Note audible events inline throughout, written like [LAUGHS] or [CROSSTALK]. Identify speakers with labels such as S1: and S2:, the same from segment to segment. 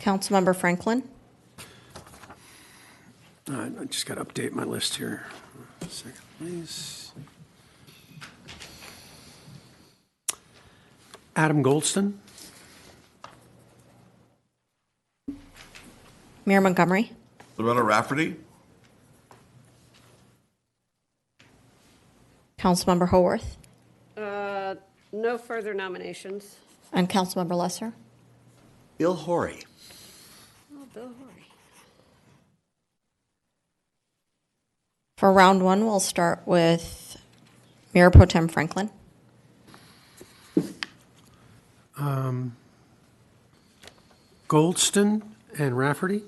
S1: Councilmember Franklin.
S2: Uh, I just got to update my list here. Second, please. Adam Goldston,
S1: Mayor Montgomery.
S3: Loretta Rafferty,
S1: Councilmember Haworth.
S4: Uh, No further nominations.
S1: And Councilmember Lesser.
S3: Bill Horry,
S4: Oh, Bill Horry.
S1: For round one, we'll start with Mayor Pro Tem Franklin.
S2: Goldston and Rafferty,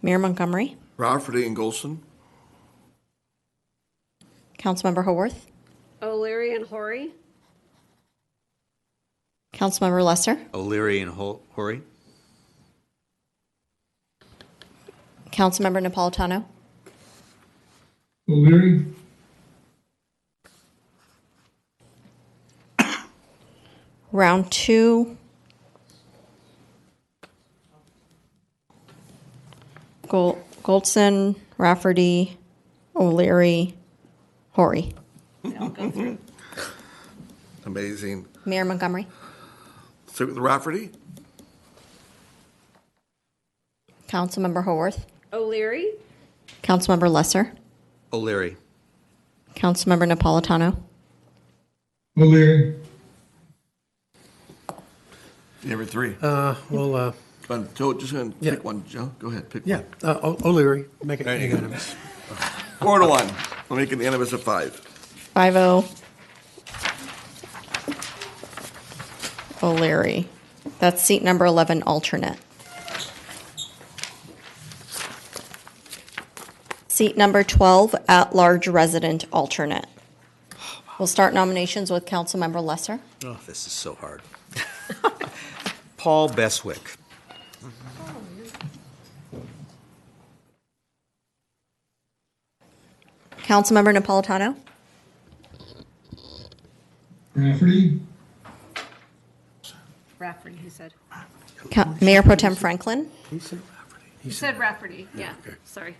S1: Mayor Montgomery.
S3: Rafferty and Golson,
S1: Councilmember Haworth.
S4: O'Leary and Horry.
S1: Councilmember Lesser.
S5: O'Leary and Hol- Horry.
S1: Councilmember Napolitano.
S6: O'Leary,
S1: Round two. Gol- Goldson, Rafferty, O'Leary, Horry.
S3: amazing.
S1: Mayor Montgomery.
S3: Start with Rafferty,
S1: Councilmember Haworth.
S4: O'Leary.
S1: Councilmember Lesser.
S5: O'Leary.
S1: Councilmember Napolitano.
S6: O'Leary,
S3: number three.
S2: Uh, well, uh,
S3: Go on, Joe, just gonna
S2: Yeah.
S3: pick one, Joe, go ahead, pick
S2: yeah,
S3: one.
S2: uh, O- O'Leary, make it
S3: There you go.
S2: [LAUGHS] unanimous.
S3: Four to one, we'll make it unanimous of five.
S1: 5-0. O'Leary. That's seat number 11, alternate. Seat number 12, at-large resident alternate. We'll start nominations with Councilmember Lesser.
S5: Oh, this is so hard. Paul Beswick.
S1: Councilmember Napolitano.
S6: Rafferty,
S4: Rafferty, he said.
S1: Ca- Mayor Pro Tem Franklin.
S2: He said Rafferty.
S4: He said Rafferty, yeah. Sorry.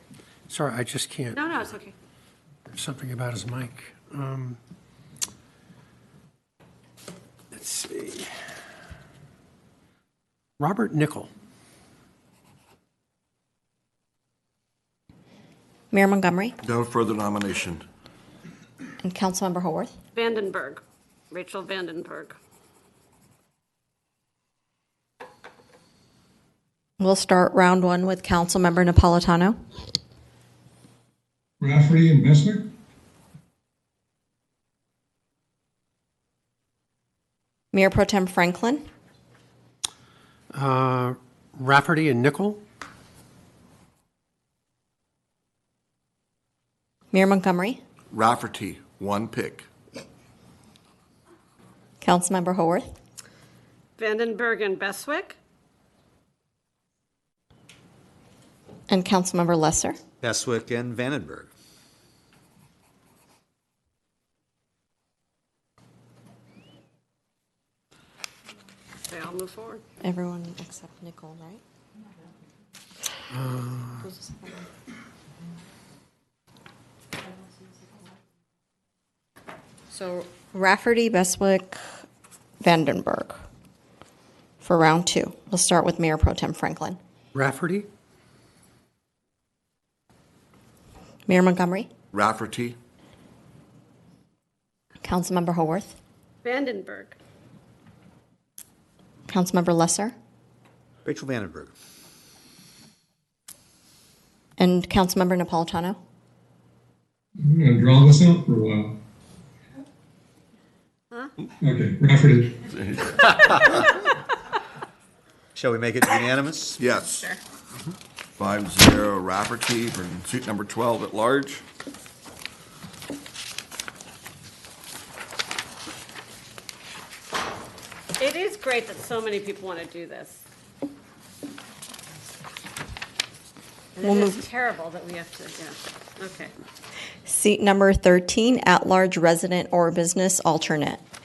S2: Sorry, I just can't,
S4: No, no, it's okay.
S2: there's something about his mic. Um, Let's see. Robert Nickel,
S1: Mayor Montgomery.
S3: No further nomination.
S1: And Councilmember Haworth.
S4: Vandenberg. Rachel Vandenberg.
S1: We'll start round one with Councilmember Napolitano.
S6: Rafferty and Messner,
S1: Mayor Pro Tem Franklin.
S2: uh, Rafferty and Nickel,
S1: Mayor Montgomery.
S3: Rafferty, one pick.
S1: Councilmember Haworth.
S4: Vandenberg and Beswick.
S1: And Councilmember Lesser.
S5: Beswick and Vandenberg.
S4: They all move forward.
S1: Everyone except Nicole, right? Who's the second one? So Rafferty, Beswick, Vandenberg for round two. We'll start with Mayor Pro Tem Franklin.
S2: Rafferty,
S1: Mayor Montgomery,
S3: Rafferty,
S1: Councilmember Haworth,
S4: Vandenberg.
S1: Councilmember Lesser,
S5: Rachel Vandenberg.
S1: and Councilmember Napolitano.
S6: I'm gonna draw this out for a while. Okay, Rafferty,
S5: Shall we make it unanimous?
S3: yes. Mm-hmm. Five zero, Rafferty for seat number twelve at large.
S4: It is great that so many people want to do this. And
S1: We'll
S4: it
S1: move-
S4: is terrible that we have to, yeah. Okay.
S1: Seat number 13, at-large resident or business alternate.